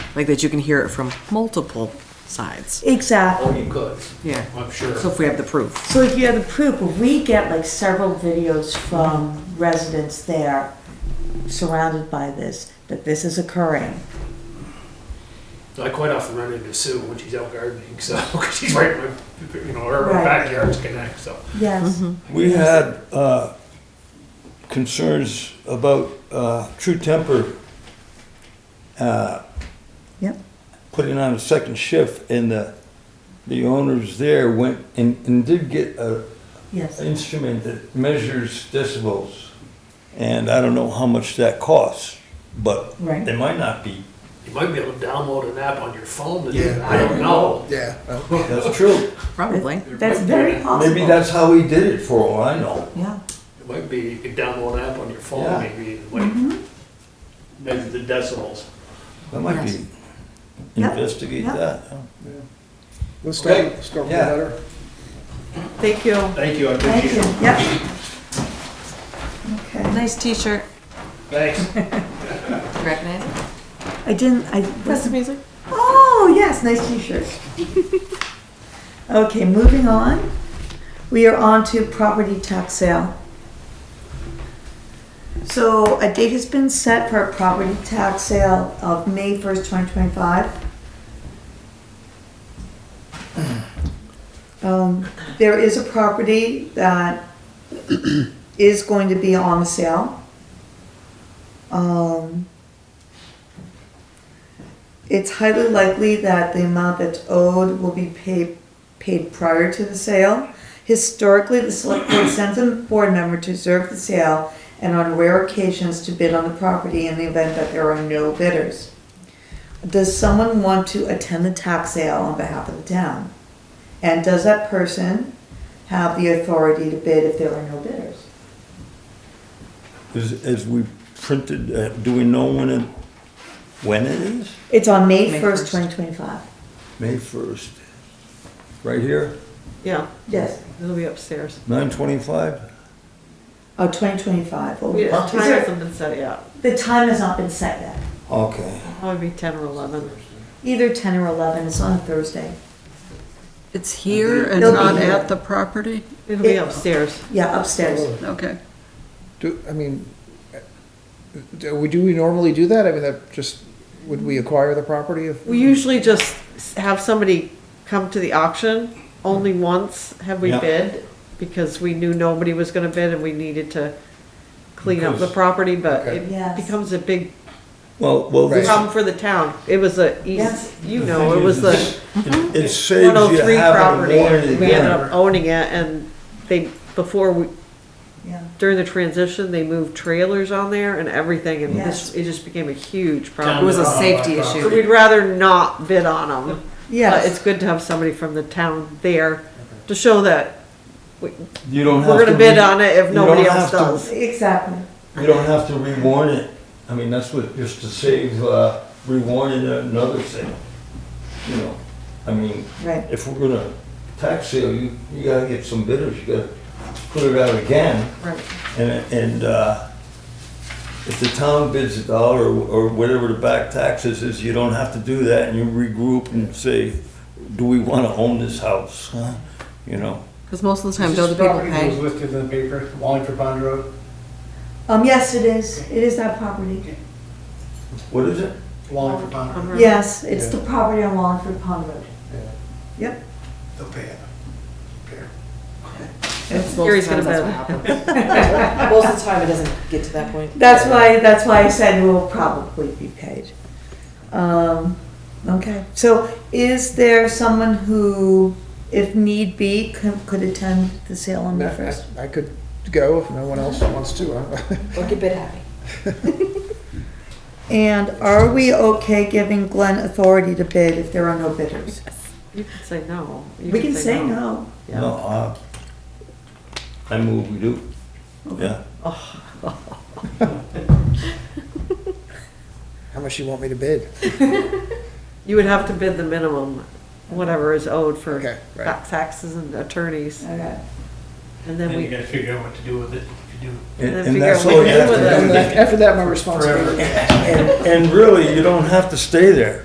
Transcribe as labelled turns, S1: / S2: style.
S1: like that you can hear it from multiple sides.
S2: Exactly.
S3: Oh, you could,
S1: Yeah.
S3: I'm sure.
S1: So if we have the proof.
S2: So if you have the proof, but we get like several videos from residents there surrounded by this, that this is occurring.
S3: I quite often run into Sue when she's out gardening, so, 'cause she's right in my, you know, her
S2: Right.
S3: backyard's connect, so.
S2: Yes.
S4: We had uh, concerns about uh, True Temper
S2: Yep.
S4: putting on a second shift, and the, the owners there went and, and did get a
S2: Yes.
S4: instrument that measures decibels. And I don't know how much that costs, but
S2: Right.
S4: they might not be.
S3: You might be able to download an app on your phone to do
S5: Yeah.
S3: that. I don't know.
S5: Yeah.
S4: That's true.
S1: Probably.
S2: That's very possible.
S4: Maybe that's how he did it for all I know.
S2: Yeah.
S3: It might be, you could download an app on your
S4: Yeah.
S3: phone maybe, and like,
S6: Mm-hmm.
S3: measure the decibels.
S4: That might be,
S2: Yep.
S4: investigate
S2: Yep.
S4: that. huh?
S5: Let's
S3: Okay.
S5: start, start with
S4: Yeah.
S5: the letter.
S2: Thank you.
S3: Thank you, I
S2: Thank
S3: appreciate
S2: you.
S3: it.
S2: Yep. Okay.
S1: Nice t-shirt.
S3: Thanks.
S1: Recognize it?
S2: I didn't, I
S1: That's
S2: wasn't,
S1: music.
S2: oh, yes, nice t-shirt. Okay, moving on. We are on to property tax sale. So a date has been set for a property tax sale of May first, twenty twenty-five. Um, there is a property that is going to be on sale. Um, it's highly likely that the amount that's owed will be paid, paid prior to the sale. Historically, the select board sends a board member to observe the sale and on rare occasions to bid on the property in the event that there are no bidders. Does someone want to attend the tax sale on behalf of the town? And does that person have the authority to bid if there are no bidders?
S4: As, as we printed, uh, do we know when it, when it is?
S2: It's on May
S1: May
S2: first,
S1: 1st.
S2: twenty twenty-five.
S4: May first. Right here,
S7: Yeah,
S2: Yes,
S7: it'll be upstairs.
S4: nine twenty-five?
S2: oh, twenty twenty-five.
S7: We- Time hasn't been set yet.
S2: The time has not been set yet.
S4: Okay.
S7: Probably be ten or eleven.
S2: Either ten or eleven, it's on a Thursday.
S8: It's here and
S2: They'll be
S8: not
S2: here.
S8: at the property?
S7: It'll be
S2: It-
S7: upstairs.
S2: Yeah, upstairs.
S8: Okay.
S5: Do, I mean, uh, do we, do we normally do that? I mean, that just, would we acquire the property if?
S7: We usually just s- have somebody come to the auction. Only once have we
S4: Yeah.
S7: bid because we knew nobody was gonna bid and we needed to clean up the
S4: Because-
S7: property, but
S5: Okay.
S7: it
S2: Yes.
S7: becomes a big
S4: Well, well, this.
S7: problem for the town. It was a
S2: Yes.
S7: east, you know, it was the
S4: It- It saves
S7: one oh
S4: you
S7: three
S4: having
S7: property.
S4: to warn it
S7: We ended
S4: again.
S7: up owning it and they, before we,
S2: Yeah.
S7: during the transition, they moved trailers on there and everything, and
S2: Yes.
S7: this, it just became a huge
S1: It
S7: problem.
S1: was a safety
S7: So
S1: issue.
S7: we'd rather not bid on them. But it's
S2: Yes,
S7: good to have somebody from the town there to show that
S4: You don't have to.
S7: we're gonna bid
S4: re-
S7: on it if
S4: you don't
S7: nobody
S4: have
S7: else
S4: to-
S7: does.
S2: exactly.
S4: You don't have to rewarn it. I mean, that's what, just to save, uh, rewarning another sale. You know, I mean,
S2: Right.
S4: if we're gonna tax sale, you, you gotta get some bidders, you gotta put it out again.
S7: Right.
S4: And, and, uh, if the town bids a dollar or whatever the back taxes is, you don't have to do that and you regroup and say, do we wanna own this house? huh? You know,
S8: Because most of the time, other people
S6: This
S8: pay.
S6: property was listed in the paper, Wallingford Pond Road,
S2: Um, yes, it is. It is that property.
S4: what is it?
S6: Wallingford Pond
S2: Uh-huh.
S6: Road.
S2: Yes, it's the property on Wallingford Pond Road. Yep.
S6: They'll pay it.
S1: It's most
S7: Gary's
S1: times
S7: gonna
S1: that's what happens.
S8: Most of the time, it doesn't get to that point.
S2: That's why, that's why I said it will probably be paid. Um, okay, so is there someone who, if need be, could, could attend the sale on
S5: I-
S2: the
S5: I
S2: first?
S5: I could go if no one else wants to. huh?
S8: Look a bit happy.
S2: And are we okay giving Glenn authority to bid if there are no bidders?
S7: You can say no. You
S2: We can say no.
S7: Yeah.
S4: No, uh, I move we do. Yeah,
S5: How much you want me to bid?
S7: You would have to bid the minimum, whatever is owed for
S5: Okay, right.
S7: back taxes and attorneys,
S2: Okay.
S7: and then
S3: Then you
S7: we,
S3: gotta figure out what to do with it, if you do.
S4: and
S7: then
S4: and
S7: figure
S4: that's
S7: out what
S4: all
S7: to
S4: you
S7: do
S4: have
S7: with
S4: to
S7: it.
S4: do.
S5: After that, my responsibility.
S4: And really, you don't have to stay there.